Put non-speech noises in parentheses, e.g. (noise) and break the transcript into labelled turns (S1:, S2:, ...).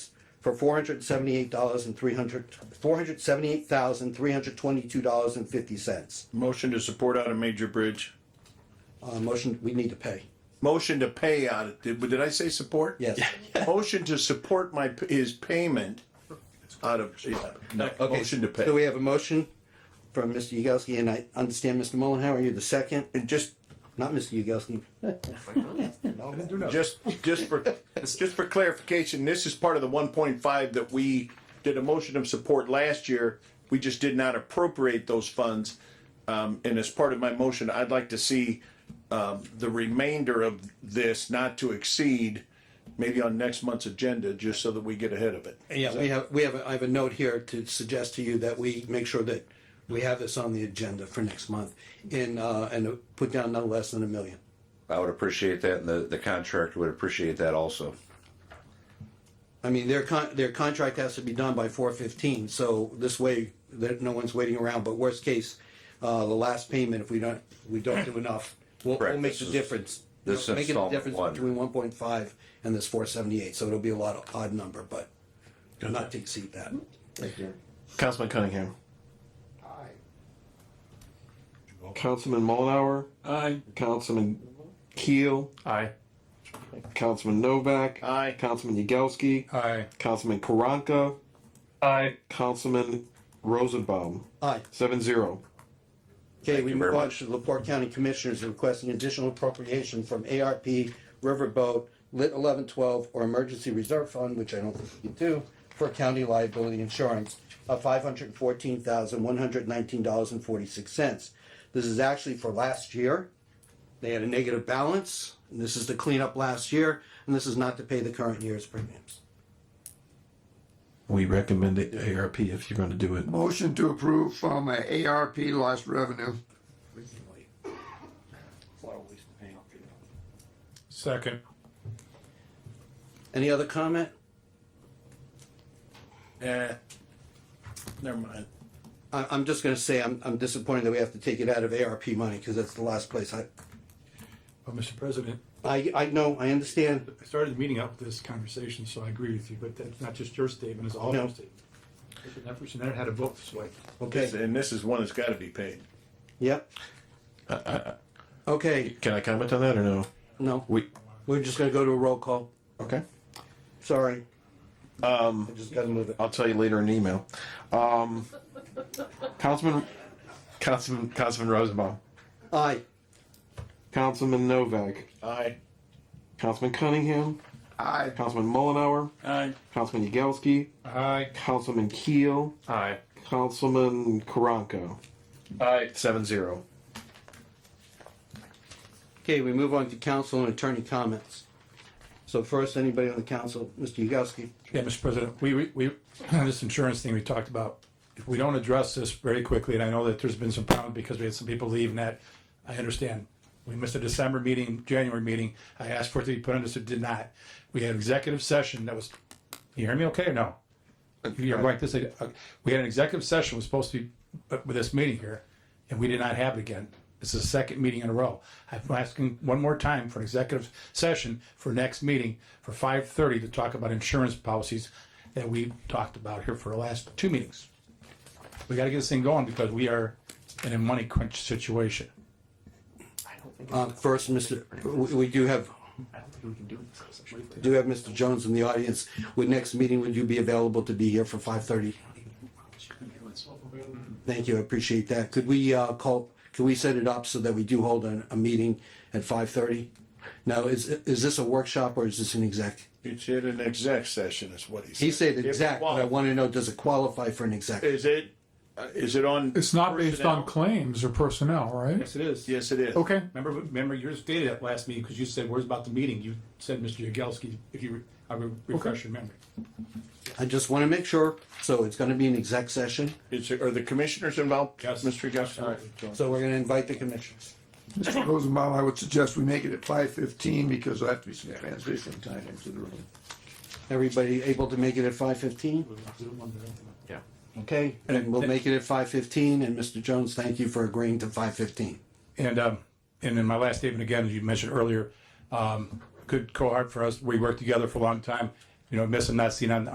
S1: for four hundred seventy-eight dollars and three hundred, four hundred seventy-eight thousand, three hundred twenty-two dollars and fifty cents.
S2: Motion to support out of Major Bridge.
S1: Uh, motion, we need to pay.
S2: Motion to pay out, of- did, did I say support?
S1: Yes.
S2: Motion to support my, p- his payment out of, yeah, no,
S1: Okay,
S2: motion to
S1: So
S2: pay.
S1: we have a motion from Mr. Yagowski, and I understand, Mr. Mullenhour, you're the second,
S2: And just,
S1: not Mr. Yagowski. (laughs)
S2: just, just for, (laughs) just for clarification, this is part of the one point five that we did a motion of support last year. We just did not appropriate those funds. Um, and as part of my motion, I'd like to see, um, the remainder of this not to exceed maybe on next month's agenda, just so that we get ahead of it.
S1: Yeah, we have, we have, a- I have a note here to suggest to you that we make sure that we have this on the agenda for next month and, uh, and put down no less than a million.
S3: I would appreciate that, and the, the contractor would appreciate that also.
S1: I mean, their con, their contract has to be done by four fifteen, so this way, that no one's waiting around, but worst case, uh, the last payment, if we don't, we don't do enough, we'll, we'll
S3: Correct,
S1: make
S3: this
S1: the
S3: is-
S1: difference.
S3: this
S1: Make it a
S3: installment
S1: difference
S3: one.
S1: between one point five and this four seventy-eight, so it'll be a lot of odd number, but not to exceed that.
S2: Councilman Cunningham.
S4: Councilman Mullenhour. Aye. Councilman Keel.
S2: Aye.
S4: Councilman Novak.
S2: Aye.
S4: Councilman Yagowski.
S5: Aye.
S4: Councilman Karanka.
S5: Aye.
S4: Councilman Rosenbaum.
S1: Aye.
S4: Seven zero.
S1: Okay, we
S3: you very
S1: move on
S3: much.
S1: to the Laporte County Commissioners requesting additional appropriation from ARP Riverboat Lit eleven twelve or Emergency Reserve Fund, which I don't think you do, for county liability insurance of five hundred fourteen thousand, one hundred nineteen dollars and forty-six cents. This is actually for last year. They had a negative balance, and this is to clean up last year, and this is not to pay the current year's premiums.
S6: We recommend it ARP if you're gonna do it.
S7: Motion to approve from uh, ARP lost revenue.
S5: Second.
S1: Any other comment?
S2: Eh, never mind.
S1: I, I'm just gonna say, I'm, I'm disappointed that we have to take it out of ARP money, because that's the last place I,
S8: Well, Mr. President,
S1: I, I know, I understand.
S8: I started the meeting out with this conversation, so I agree with you, but that's not just your statement, it's all of
S1: No.
S8: our statement. Listen, That person there had a vote this way.
S1: Okay,
S2: And this is one that's gotta be paid.
S1: yep. Okay,
S6: Can I comment on that or no?
S1: no,
S6: We,
S1: we're just gonna go to a roll call.
S6: okay,
S1: Sorry. Um. I just gotta move it.
S6: I'll tell you later in email.
S4: Um, Councilman,
S6: Councilman, Councilman Rosenbaum.
S1: Aye.
S4: Councilman Novak.
S2: Aye.
S4: Councilman Cunningham.
S7: Aye.
S4: Councilman Mullenhour.
S2: Aye.
S4: Councilman Yagowski.
S8: Aye.
S4: Councilman Keel.
S6: Aye.
S4: Councilman Karanka.
S6: Aye. Seven zero.
S1: Okay, we move on to council and attorney comments. So first, anybody on the council, Mr. Yagowski?
S8: Yeah, Mr. President, we, we- (clears throat) we, this insurance thing we talked about, if we don't address this very quickly, and I know that there's been some problems because we had some people leave and that, I understand. We missed a December meeting, January meeting. I asked for it to be put on this, it did not. We had executive session that was, you hear me okay or no? You're right, this, uh, we had an executive session, was supposed to be uh, with this meeting here, and we did not have it again. This is the second meeting in a row. I'm asking one more time for an executive session for next meeting for five thirty to talk about insurance policies that we talked about here for the last two meetings. We gotta get this thing going because we are in a money crunch situation.
S1: Uh, first, Mr., we, we do have, do have Mr. Jones in the audience. Would next meeting, would you be available to be here for five thirty? Thank you, I appreciate that. Could we, uh, call, could we set it up so that we do hold a, a meeting at five thirty? Now, is, is this a workshop or is this an exec?
S2: It's in an exec session is what he said.
S1: He said
S2: If it
S1: exec, but I
S2: qual-
S1: wanna know, does it qualify for an exec?
S2: Is it, uh, is it on?
S5: It's not based on
S2: personnel?
S5: claims or personnel, right?
S8: Yes, it is.
S2: Yes, it is.
S5: Okay.
S8: Remember, remember you stated that last meeting because you said, where's about the meeting? You said, Mr. Yagowski, if you, re- I would refresh your memory.
S1: I just wanna make sure, so it's gonna be an exec session,
S2: Is, it- are the commissioners involved?
S8: Yes.
S2: Mr. Gus?
S1: so we're gonna invite the commissioners.
S7: Mr. Rosenbaum, I would suggest we make it at five fifteen because I have to be some transition time into the room.
S1: Everybody able to make it at five fifteen? Okay, and we'll make it at five fifteen, and Mr. Jones, thank you for agreeing to five fifteen.
S8: And, um, and in my last statement again, as you mentioned earlier, um, good cohort for us. We worked together for a long time. You know, miss and not seen on,